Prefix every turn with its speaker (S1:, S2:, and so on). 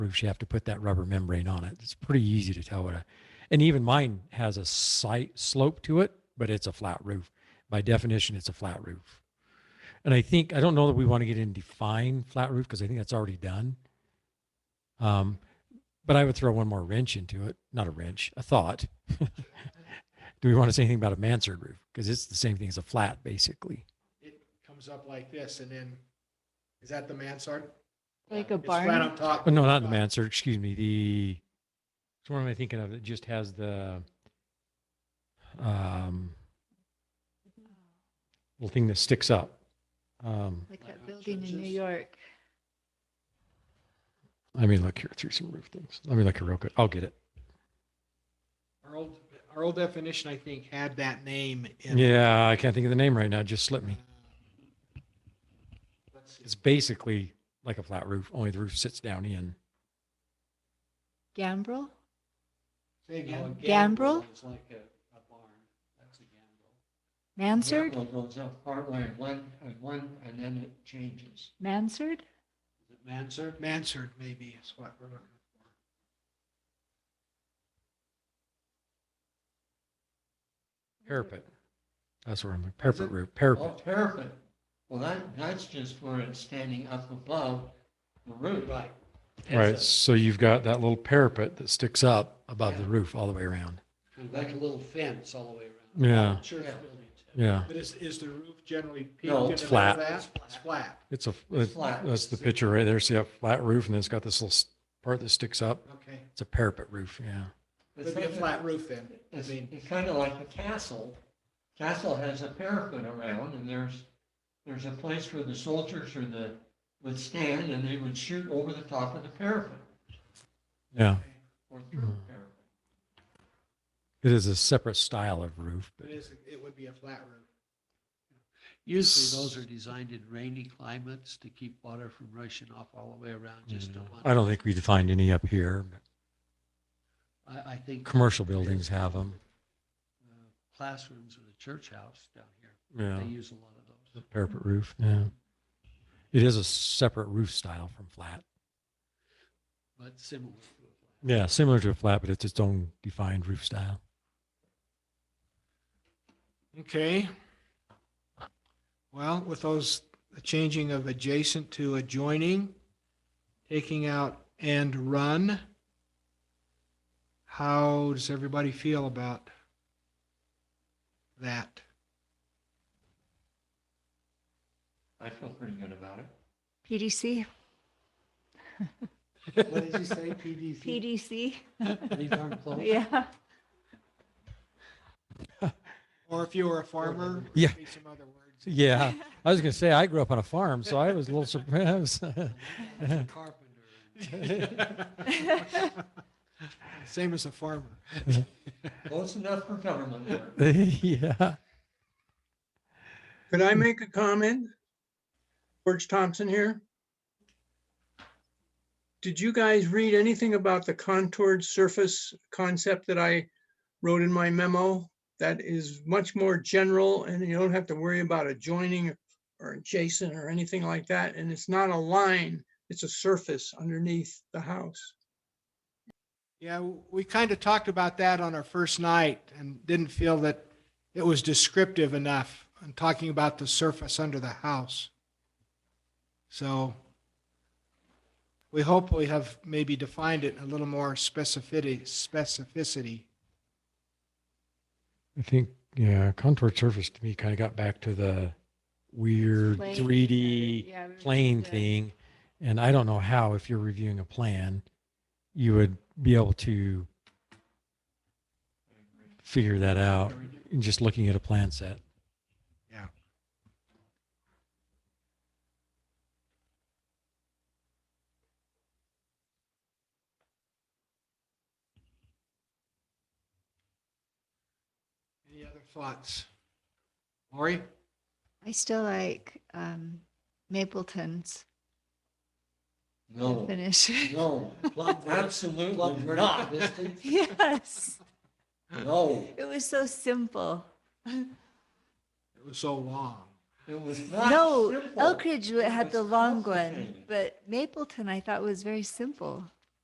S1: grooves, you have to put that rubber membrane on it. It's pretty easy to tell what a, and even mine has a slight slope to it, but it's a flat roof. By definition, it's a flat roof. And I think, I don't know that we want to get in define flat roof because I think that's already done. Um, but I would throw one more wrench into it, not a wrench, a thought. Do we want to say anything about a mansard roof? Because it's the same thing as a flat, basically.
S2: It comes up like this and then, is that the mansard?
S3: Like a
S2: It's flat
S3: barn,
S2: up top.
S1: Oh, no, not the mansard, excuse me, the, which one am I thinking of that just has the, um, little thing that sticks up? Um,
S3: like
S2: Like
S3: that building in New
S2: churches.
S3: York.
S1: let me look here through some roof things. Let me look here real quick. I'll get it.
S2: Our old, our old definition, I think, had that name in. it.
S1: Yeah, I can't think of the name right now. It Just slipped me.
S2: Let's see.
S1: It's basically like a flat roof, only the roof sits down in.
S3: Gambrel?
S2: Say again.
S3: Gambrel?
S4: It's like a, a barn, that's a gambrel.
S3: Mansard?
S4: Gambrel goes up partway and one, and one, and then it changes.
S3: Mansard?
S4: Is it mansard?
S2: Mansard maybe is what we're looking for.
S1: Parapet. That's where I'm,
S4: Is
S1: parapet
S4: it?
S1: roof,
S4: Oh,
S1: parapet.
S4: parapet. Well, that, that's just where it's standing up above the roof.
S2: Right.
S1: Right,
S4: It's
S1: so you've got that little parapet that sticks up above the roof all the way around.
S4: a- Like a little fence all the way around.
S1: Yeah,
S2: Church
S4: Yeah.
S2: building.
S1: yeah.
S2: But is, is the roof generally peaked?
S4: No,
S2: in
S4: it's
S2: the middle
S1: flat.
S2: of that? It's flat.
S1: It's a,
S4: It's
S1: that's
S4: flat.
S1: that's the picture right there. See a flat roof and then it's got this little s- part that sticks up.
S2: Okay.
S1: It's a parapet roof, yeah.
S2: It'd be a flat roof then. I
S4: It's,
S2: mean,
S4: it's kind of like a castle. Castle has a parapet around and there's, there's a place where the soldiers or the, would stand and they would shoot over the top of the parapet
S1: Yeah,
S4: or through the
S1: Hmm.
S4: parapet.
S1: it is a separate style of roof, but
S2: it is, it would be a flat roof.
S5: Usually those are designed in rainy climates to keep water from rushing off all the way around, just to
S1: mm,
S5: one.
S1: I don't think we defined any up here.
S5: I, I think.
S1: Commercial buildings have them.
S5: uh, Classrooms in the church house down here,
S1: Yeah,
S5: they use a lot of those.
S1: parapet roof, yeah. It is a separate roof style from flat.
S5: But similar to a flat.
S1: Yeah, similar to a flat, but it's its own defined roof style.
S2: Okay. Well, with those, the changing of adjacent to adjoining, taking out and run, how does everybody feel about that?
S4: I feel pretty good about it.
S3: PDC?
S4: What did you say, PVC?
S3: PDC?
S4: These aren't close.
S3: Yeah.
S2: Or if you were a farmer,
S1: Yeah.
S2: it'd be some other words.
S1: Yeah, I was gonna say I grew up on a farm, so I was a little surprised.
S5: Carpenter.
S2: Same as a farmer.
S4: Close enough for government work.
S1: yeah.
S6: Could I make a comment? George Thompson here. Did you guys read anything about the contoured surface concept that I wrote in my memo? That is much more general and you don't have to worry about adjoining or adjacent or anything like that. And it's not a line, it's a surface underneath the house.
S2: Yeah, w- we kind of talked about that on our first night and didn't feel that it was descriptive enough in talking about the surface under the house. So we hope we have maybe defined it in a little more specificity, specificity.
S1: I think yeah, contoured surface to me kind of got back to the weird
S3: Plane.
S1: 3D
S3: Yeah, we were
S1: plane
S3: just, uh,
S1: thing, and I don't know how if you're reviewing a plan, you would be able to figure that out in just looking at a plan set.
S2: Any other thoughts? Lori?
S3: I still like um, Mapleton's
S4: No,
S3: finish.
S4: no, absolutely not.
S3: Yes,
S4: No,
S3: it was so simple.
S2: It was so long.
S4: it was not
S3: No,
S4: simple.
S3: Elkridge
S4: It
S3: had the
S4: was
S3: long one,
S4: complicated.
S3: but Mapleton I thought was very simple.